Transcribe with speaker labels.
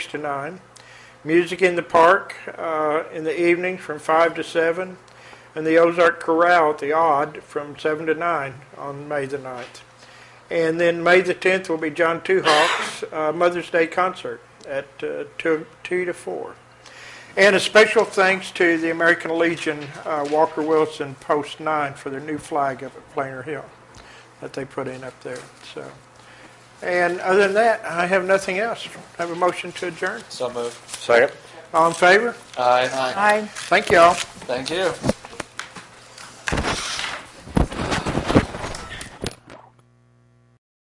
Speaker 1: to 9. Music in the Park uh, in the evening from 5 to 7. And the Ozark Corral at the Odd from 7 to 9 on May the 9th. And then May the 10th will be John Two Hawks' uh, Mother's Day concert at uh, 2, 2 to 4. And a special thanks to the American Legion uh, Walker Wilson Post 9 for their new flag up at Plainer Hill that they put in up there. So, And other than that, I have nothing else. I have a motion to adjourn.
Speaker 2: So moved.
Speaker 3: Second.
Speaker 1: All in favor?
Speaker 2: Aye.
Speaker 1: Thank you all.
Speaker 2: Thank you.